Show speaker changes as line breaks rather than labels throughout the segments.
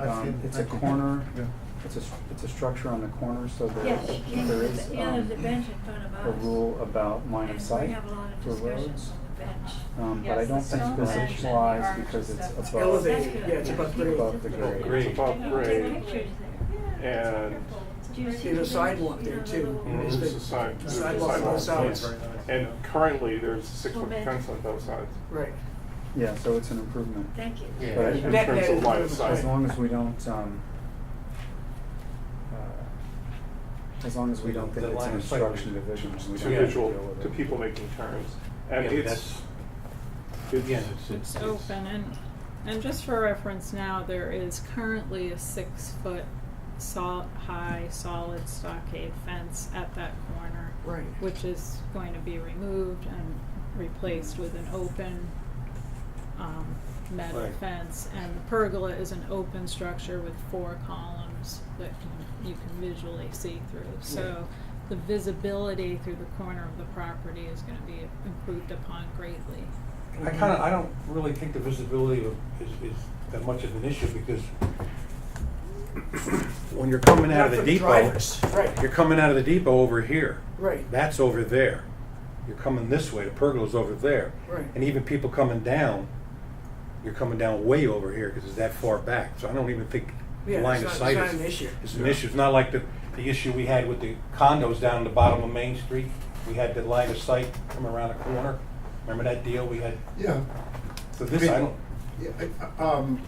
I've
Um,
seen-
It's a
I've seen-
corner,
Yeah.
it's a, str- it's a structure on the corner, so there
Yes,
is,
and
there is
there's, yeah, there's a
um,
bench in front of us.
a rule about line of
And we
sight
have a lot of
for
discussions
roads.
on the bench.
Um, But I
Yes,
don't
the
think
stone
this
bench and the
applies
orange
because it's
stuff.
above.
Elevated,
That's good.
yeah, it's above grade.
Above the grade.
Great.
It's above grade. Pictures
And
there. Do you see
There's a
the-
sidewalk
you
there
know, the
too.
little-
Mhm.
there's a side,
The
there's a
sidewalk on
sidewalk.
both sides.
yes. And currently, there's a six-foot
Well,
fence on both sides.
Right.
Yeah, so it's an improvement.
Thank you.
But
Yeah.
in
That-
terms
that
of
is
line of
good.
As
sight,
long as we don't, um, uh, as long as we don't think
The
it's an
line of sight
obstruction to
would-
vision, we
to
don't have to deal
visual,
with it.
to people making turns.
Yeah,
And
but
it's,
that's- Again, it's,
it's,
It's
it's.
open and, and just for reference now, there is currently a six foot sol- high solid stockade fence at that corner.
Right.
Which is going to be removed and replaced with an open, um, metal
Right.
fence. And the pergola is an open structure with four columns that can, you can visually see through. So the visibility through the corner of the property is gonna be improved upon greatly.
I kind of, I don't really think the visibility of, is, is that much of an issue because when you're coming out of the
Not for
depot,
drivers. Right.
you're coming out of the depot over here.
Right.
That's over there. You're coming this way, the pergola's over there.
Right.
And even people coming down, you're coming down way over here because it's that far back. So I don't even think the
Yeah,
line
it's
of
not-
sight
it's
is.
not an issue.
It's an issue. It's not like the, the issue we had with the condos down the bottom of Main Street. We had the line of sight come around the corner. Remember that deal we had?
Yeah,
So this, I don't,
yeah, I- um,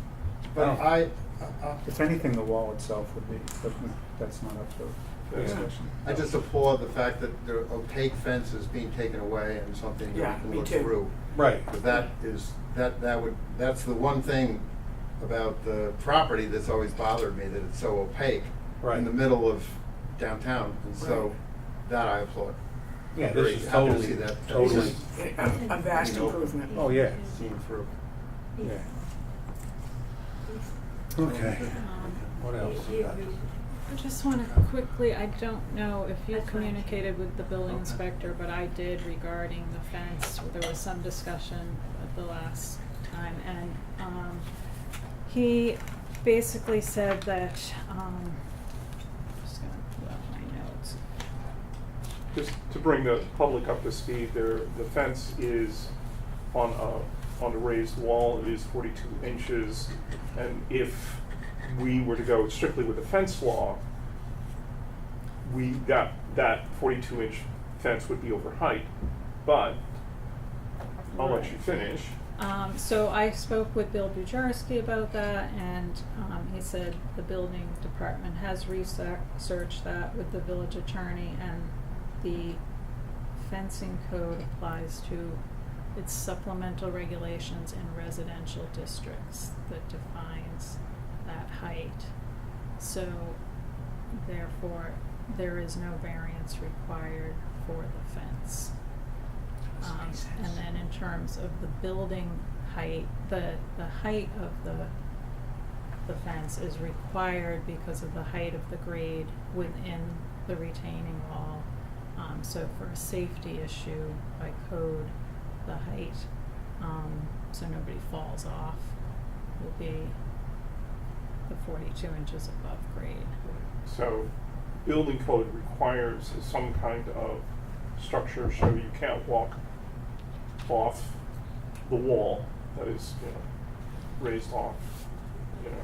but
Oh.
I, I-
If anything, the wall itself would be, but that's not up for
Yeah.
discussion.
I just applaud the fact that the opaque fence is being taken away and something
Yeah,
that we
me
can look
too.
through.
right.
Because that is, that, that would, that's the one thing about the property that's always bothered me, that it's so opaque
Right.
in the middle of downtown, and so
Right.
that I applaud.
Yeah,
Very
this is
happy to
totally,
see that.
totally.
A a vast improvement.
Oh, yeah.
Seeing through.
Yeah.
Okay.
Um,
What else?
You- you-
Mm-hmm.
I just want to quickly, I don't know if you
That's fine.
communicated with the building
Okay.
inspector, but I did regarding the fence. There was some discussion at the last time, and, um, he basically said that, um, just gonna pull out my notes.
just to bring the public up to speed, there, the fence is on a, on a raised wall, it is forty-two inches. And if we were to go strictly with the fence law, we, that, that forty-two inch fence would be over height. But, I'll let you finish.
Um, so I spoke with Bill Bujarski about that, and um, he said the building department has researched that with the village attorney, and the fencing code applies to its supplemental regulations in residential districts that defines that height. So therefore, there is no variance required for the fence. Um, and then in terms of the building height, the, the height of the, the fence is required because of the height of the grade within the retaining wall. Um, so for a safety issue by code, the height, um, so nobody falls off, will be the forty-two inches above grade.
So, building code requires some kind of structure, so you can't walk off the wall that is, you know, raised off, you know,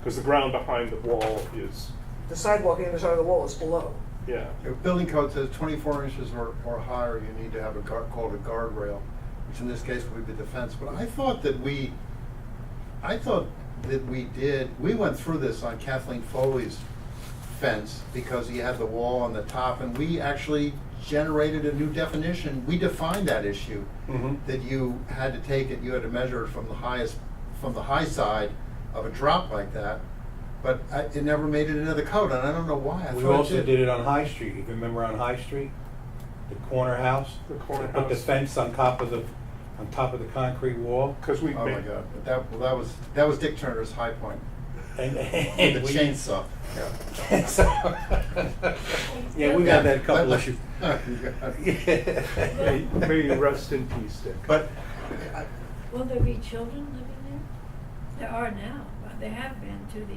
because the ground behind the wall is,
The sidewalk on the other side of the wall is below.
yeah,
If building code says twenty-four inches or, or higher, you need to have a guard, called a guardrail, which in this case would be the fence, but I thought that we, I thought that we did, we went through this on Kathleen Foley's fence, because he had the wall on the top, and we actually generated a new definition, we defined that issue,
Mm-hmm.
that you had to take it, you had to measure it from the highest, from the high side of a drop like that, but I, it never made it into the code, and I don't know why, I
We
thought
also did it on High Street. You remember on High Street? The corner house?
The corner
They Put the
house.
fence on top of the, on top of the concrete wall.
because we
Oh my
made,
God, But that, well, that was, that was Dick Turner's high point,
And,
with the
and we.
chainsaw.
So- Yeah, we had that a couple
Yeah.
issues.
Oh, God.
may, may you rest in peace, Dick.
But, I,
Will there be children living there? There are now, but there have been through the